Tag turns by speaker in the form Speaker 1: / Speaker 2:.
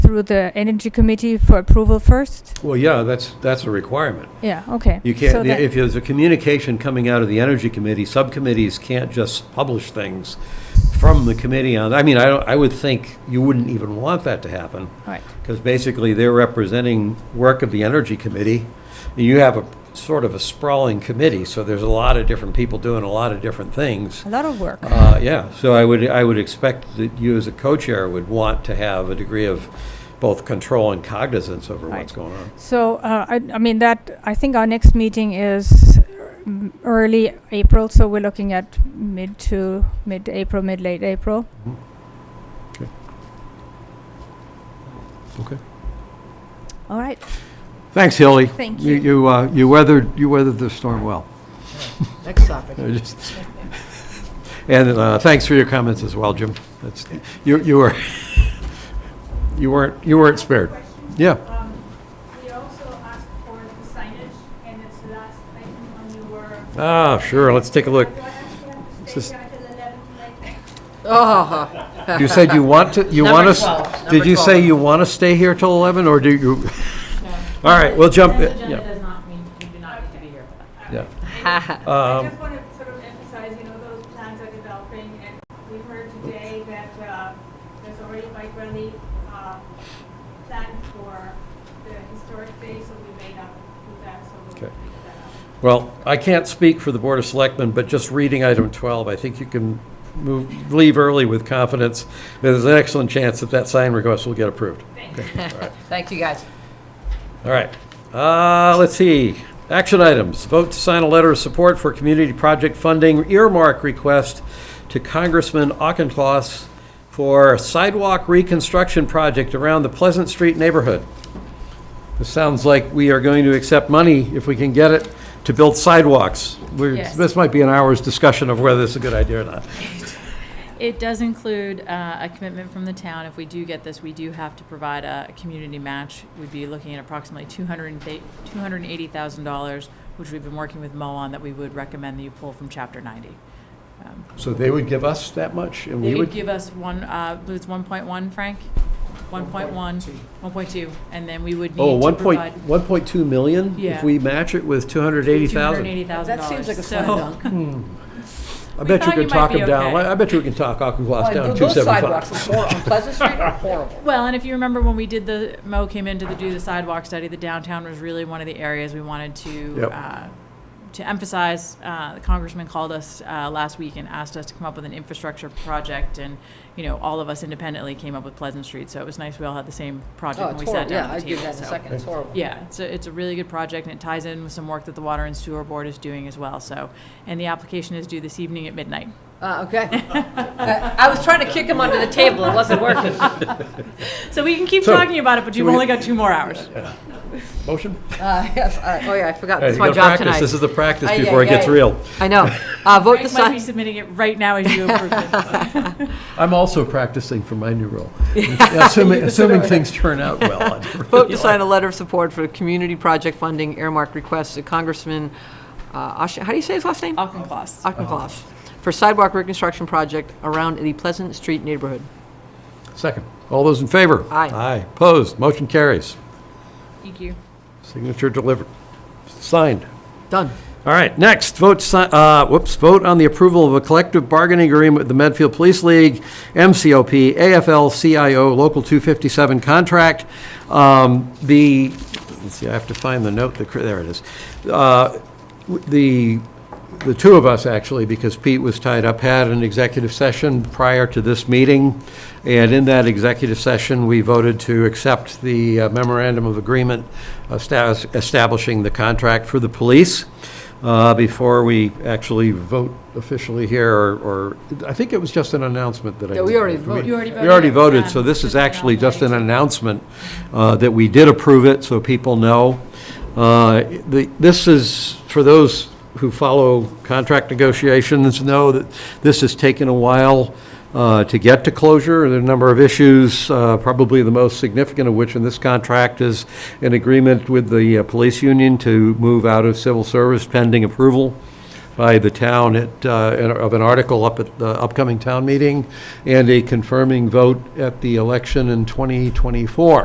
Speaker 1: through the Energy Committee for approval first?
Speaker 2: Well, yeah, that's, that's a requirement.
Speaker 1: Yeah, okay.
Speaker 2: You
Speaker 1: So
Speaker 2: can't,
Speaker 1: that-
Speaker 2: if there's a communication coming out of the Energy Committee, subcommittees can't just publish things from the committee on, I mean, I, don't- I would think you wouldn't even want that to happen,
Speaker 1: All right,
Speaker 2: because basically they're representing work of the Energy Committee. You have a sort of a sprawling committee, so there's a lot of different people doing a lot of different things.
Speaker 1: a lot of work.
Speaker 2: Uh, Yeah, so I would, I would expect that you as a co-chair would want to have a degree of both control and cognizance over
Speaker 1: Right.
Speaker 2: what's going on.
Speaker 1: So, uh, I, I mean, that, I think our next meeting is mm, early April, so we're looking at mid to, mid-April, mid-late April.
Speaker 2: Mm-hmm. Okay.
Speaker 1: All right,
Speaker 2: Thanks, Hilly.
Speaker 1: Thank
Speaker 2: You,
Speaker 1: you.
Speaker 2: you, uh, you weathered, you weathered the storm well.
Speaker 3: Next topic.
Speaker 2: I just- And uh, thanks for your comments as well, Jim. That's, you, you were, you weren't, you weren't spared. Yeah,
Speaker 4: Um, We also asked for the signage, and it's last item on your...
Speaker 2: ah, sure, let's take a look.
Speaker 4: Do I actually have to
Speaker 2: Just-
Speaker 4: stay here till 11 tonight?
Speaker 3: Oh,
Speaker 2: You said you want to, you
Speaker 3: Number
Speaker 2: want us,
Speaker 3: 12,
Speaker 2: did
Speaker 3: number
Speaker 2: you say
Speaker 3: 12.
Speaker 2: you want to stay here till 11, or do you? All right, we'll jump,
Speaker 5: Consent
Speaker 2: yeah,
Speaker 5: agenda does not mean you do not need to be here.
Speaker 2: yeah.
Speaker 4: I
Speaker 2: Um,
Speaker 4: just want to sort of emphasize, you know, those plans are developing, and we heard today that uh, there's already quite really uh, planned for the historic day, so we may not do that, so we'll
Speaker 2: Okay.
Speaker 4: figure that out.
Speaker 2: Well, I can't speak for the Board of Selectmen, but just reading item 12, I think you can move, leave early with confidence. There's an excellent chance that that sign request will get approved.
Speaker 3: thank you, guys.
Speaker 2: All right. Uh, Let's see. Action items. Vote to sign a letter of support for community project funding earmark request to Congressman Auchincloss for sidewalk reconstruction project around the Pleasant Street neighborhood. This sounds like we are going to accept money, if we can get it, to build sidewalks. We're-
Speaker 5: Yes.
Speaker 2: This might be an hour's discussion of whether this is a good idea or not.
Speaker 5: It does include uh, a commitment from the town. If we do get this, we do have to provide a a community match. We'd be looking at approximately $280,000, which we've been working with Mo on, that we would recommend that you pull from Chapter 90. Um,
Speaker 2: So they would give us that much, and
Speaker 5: They
Speaker 2: we
Speaker 5: would
Speaker 2: would,
Speaker 5: give us one, uh, it's 1.1, Frank? 1.1, 1.2, and then we would need
Speaker 2: oh,
Speaker 5: to
Speaker 2: 1 point-
Speaker 5: provide
Speaker 2: 1.2 million? If
Speaker 5: Yeah.
Speaker 2: we match it with 280,000?
Speaker 5: $280,000.
Speaker 3: That seems like a slam
Speaker 5: So-
Speaker 3: dunk.
Speaker 2: I
Speaker 5: We
Speaker 2: bet you
Speaker 5: thought
Speaker 2: can
Speaker 5: you might
Speaker 2: talk
Speaker 5: be
Speaker 2: them down.
Speaker 5: okay.
Speaker 2: I I bet you can talk Auchincloss
Speaker 3: Boy,
Speaker 2: down
Speaker 3: tho-
Speaker 2: to
Speaker 3: Those
Speaker 2: 275.
Speaker 3: sidewalks are hor- on Pleasant Street are horrible.
Speaker 5: Well, and if you remember when we did the, Mo came in to do the sidewalk study, the downtown was really one of the areas we wanted to,
Speaker 2: Yep.
Speaker 5: uh, to emphasize. Uh, The congressman called us uh, last week and asked us to come up with an infrastructure project, and, you know, all of us independently came up with Pleasant Street, so it was nice we all had the same project
Speaker 3: Oh,
Speaker 5: when
Speaker 3: it's
Speaker 5: we sat
Speaker 3: horrible,
Speaker 5: down
Speaker 3: yeah, I
Speaker 5: at the
Speaker 3: give
Speaker 5: table.
Speaker 3: that in a
Speaker 5: so-
Speaker 3: second, it's horrible.
Speaker 5: yeah, it's a, it's a really good project, and it ties in with some work that the Water and Sewer Board is doing as well, so, and the application is due this evening at midnight.
Speaker 3: Uh, okay. Uh, I was trying to kick him under the table, it wasn't working.
Speaker 5: So we can keep
Speaker 2: So,
Speaker 5: talking about it, but you've
Speaker 2: we-
Speaker 5: only got two more hours.
Speaker 2: Motion?
Speaker 3: Uh, yes, uh, oh yeah, I forgot,
Speaker 2: Hey, you
Speaker 3: it's my
Speaker 2: gotta
Speaker 3: job
Speaker 2: practice.
Speaker 3: tonight.
Speaker 2: This is the practice
Speaker 5: Oh,
Speaker 3: Aye,
Speaker 2: before
Speaker 3: aye,
Speaker 2: it gets
Speaker 3: aye.
Speaker 2: real.
Speaker 3: I know. Uh, vote to
Speaker 5: Frank might be
Speaker 3: sign,
Speaker 5: submitting it right now as you approve it.
Speaker 2: I'm also practicing for my new role. Assuming, assuming things turn out well.
Speaker 3: vote to sign a letter of support for community project funding earmark requests to Congressman, uh, Osh- how do you say his last name?
Speaker 5: Auchincloss.
Speaker 3: Auchincloss, for sidewalk reconstruction project around the Pleasant Street neighborhood.
Speaker 2: Second. All those in favor?
Speaker 3: Aye.
Speaker 2: Aye. Opposed? Motion carries.
Speaker 5: Thank you.
Speaker 2: Signature delivered. Signed.
Speaker 3: Done.
Speaker 2: All right, next, vote, si- uh, whoops, vote on the approval of a collective bargaining agreement with the Medfield Police League, MCOP, AFL-CIO Local 257 contract. Um, The, let's see, I have to find the note, that cr- there it is. Uh, w- The, the two of us, actually, because Pete was tied up, had an executive session prior to this meeting, and in that executive session, we voted to accept the uh, memorandum of agreement estab- establishing the contract for the police. Uh, Before we actually vote officially here, or- or, I think it was just an announcement that I.
Speaker 3: Yeah, we
Speaker 2: did.
Speaker 3: already voted.
Speaker 5: You already
Speaker 2: We already
Speaker 5: voted.
Speaker 2: voted, so this is
Speaker 5: Um,
Speaker 2: actually just an announcement uh, that we did approve it, so people know. Uh, the- This is, for those who follow contract negotiations, know that this has taken a while uh, to get to closure. There are a number of issues, uh, probably the most significant of which in this contract is an agreement with the uh, police union to move out of civil service pending approval by the town at, uh, in- of an article up at the upcoming town meeting, and a confirming vote at the election in 2024.